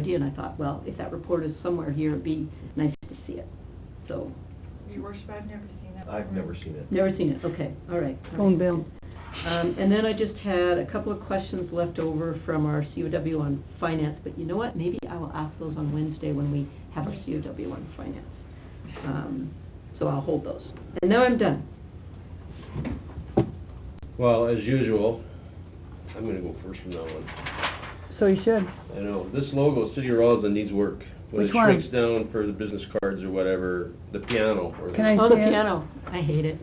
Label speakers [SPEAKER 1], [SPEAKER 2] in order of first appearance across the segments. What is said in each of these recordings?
[SPEAKER 1] idea, and I thought, well, if that report is somewhere here, it'd be nice to see it. So,
[SPEAKER 2] Your worship, I've never seen that.
[SPEAKER 3] I've never seen it.
[SPEAKER 1] never seen it, okay, all right. all right.
[SPEAKER 4] phone bill.
[SPEAKER 1] Um, and then I just had a couple of questions left over from our COW on finance, but you know what? Maybe I will ask those on Wednesday when we have our COW on finance. Um, so I'll hold those. And now I'm done.
[SPEAKER 3] Well, as usual, I'm gonna go first from now on.
[SPEAKER 4] So you should.
[SPEAKER 1] Mm.
[SPEAKER 3] I know, this logo, City of Roslin, needs work. When it
[SPEAKER 4] Which one?
[SPEAKER 3] shrinks down for the business cards or whatever, the piano or the...
[SPEAKER 4] Can I
[SPEAKER 1] Oh, the
[SPEAKER 4] see it?
[SPEAKER 1] piano. I hate it.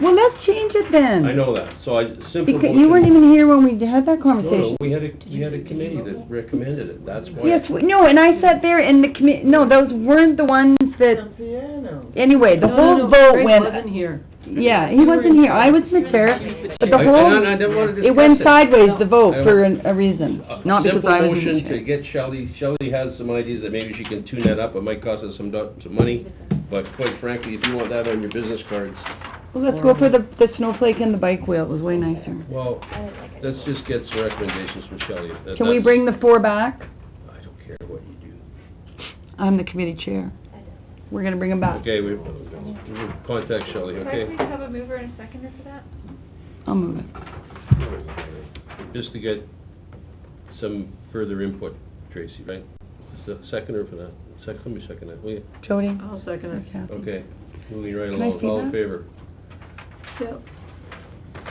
[SPEAKER 4] Well, let's change it then.
[SPEAKER 3] I know that, so I, simple
[SPEAKER 4] Because
[SPEAKER 3] motion...
[SPEAKER 4] you weren't even here when we had that
[SPEAKER 3] No, no,
[SPEAKER 4] conversation.
[SPEAKER 3] we had a, we had a committee that recommended it, that's why...
[SPEAKER 4] Yes, we- no, and I sat there and the commi, no, those weren't the ones that,
[SPEAKER 5] piano.
[SPEAKER 4] anyway, the
[SPEAKER 1] No, no,
[SPEAKER 4] whole
[SPEAKER 1] no, Greg
[SPEAKER 4] vote went,
[SPEAKER 1] wasn't here.
[SPEAKER 4] yeah, he wasn't here, I was McFerrin, but the
[SPEAKER 3] I- and
[SPEAKER 4] whole,
[SPEAKER 3] I didn't wanna
[SPEAKER 4] it went
[SPEAKER 3] discuss
[SPEAKER 4] sideways, the vote,
[SPEAKER 3] I
[SPEAKER 4] for an- a reason,
[SPEAKER 3] Uh,
[SPEAKER 4] not because
[SPEAKER 3] Simple
[SPEAKER 4] I was in the
[SPEAKER 3] motion to
[SPEAKER 4] chair.
[SPEAKER 3] get Shelley, Shelley has some ideas that maybe she can tune that up, it might cost us some, do- some money, but quite frankly, if you want that on your business cards,
[SPEAKER 4] Well, let's go for the, the snowflake and the bike wheel, it was way nicer.
[SPEAKER 3] well, let's just get some recommendations from Shelley. That-
[SPEAKER 4] Can we
[SPEAKER 3] that's-
[SPEAKER 4] bring the four back?
[SPEAKER 3] I don't care what you do.
[SPEAKER 4] I'm the committee chair. We're gonna bring them back,
[SPEAKER 3] Okay, we, we'll contact Shelley,
[SPEAKER 2] Can
[SPEAKER 3] okay?
[SPEAKER 2] I please have a mover and a seconder for that?
[SPEAKER 4] I'll move it.
[SPEAKER 3] Just to get some further input, Tracy, right? Is the seconder for that, second, let me second that, will you?
[SPEAKER 4] Jody?
[SPEAKER 1] I'll second it.
[SPEAKER 4] Okay.
[SPEAKER 3] Okay, moving right
[SPEAKER 4] Can I
[SPEAKER 3] along,
[SPEAKER 4] see
[SPEAKER 3] all in
[SPEAKER 4] that?
[SPEAKER 3] favor?
[SPEAKER 1] Yep.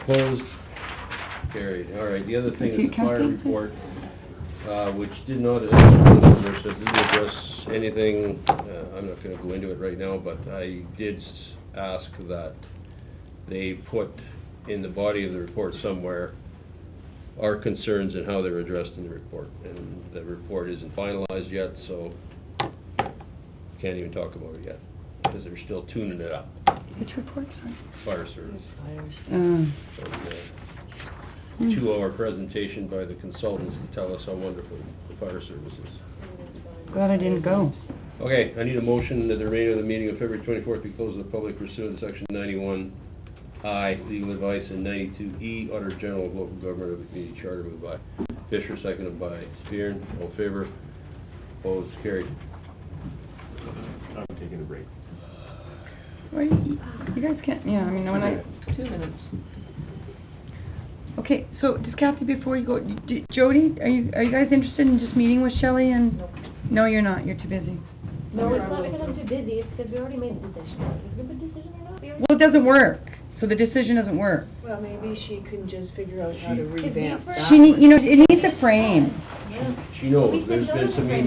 [SPEAKER 3] Opposed? Carried. All right, the other thing
[SPEAKER 4] Okay,
[SPEAKER 3] is the fire
[SPEAKER 4] Kathy?
[SPEAKER 3] report, uh, which did not, address- so didn't address anything, uh, I'm not gonna go into it right now, but I did s- ask that they put in the body of the report somewhere our concerns and how they're addressed in the report. And the report isn't finalized yet, so can't even talk about it yet, because they're still tuning it up,
[SPEAKER 4] Which report, sorry?
[SPEAKER 3] fire service.
[SPEAKER 4] Uh,
[SPEAKER 3] And, uh, two-hour presentation by the consultants to tell us how wonderful the fire service is.
[SPEAKER 4] Glad I didn't go.
[SPEAKER 3] Okay, I need a motion that the remainder of the meeting of February twenty-fourth be closed to the public pursuant to section ninety-one I, legal advice, and ninety-two E, Auditor General of Local Government of the Community Charter, moved by Fisher, seconded by Spear. All in favor? Opposed? Carried.
[SPEAKER 5] I'm taking a break.
[SPEAKER 4] Why you you guys can't, yeah, I mean, when I,
[SPEAKER 1] Two minutes.
[SPEAKER 4] okay, so just Kathy, before you go, d- Jody, are you, are you guys interested in just meeting with Shelley and? No, you're not, you're too busy.
[SPEAKER 6] No, it's not because I'm too busy, it's because we already made the decision. Is it a good decision or not? We already-
[SPEAKER 4] Well, it doesn't work, so the decision doesn't work.
[SPEAKER 7] Well, maybe she can just figure out how to
[SPEAKER 3] She-
[SPEAKER 7] revamp that.
[SPEAKER 4] She need, you know, it needs a frame.
[SPEAKER 6] Yeah.
[SPEAKER 3] She knows,
[SPEAKER 6] We said
[SPEAKER 3] there's been
[SPEAKER 6] those
[SPEAKER 3] some
[SPEAKER 6] are-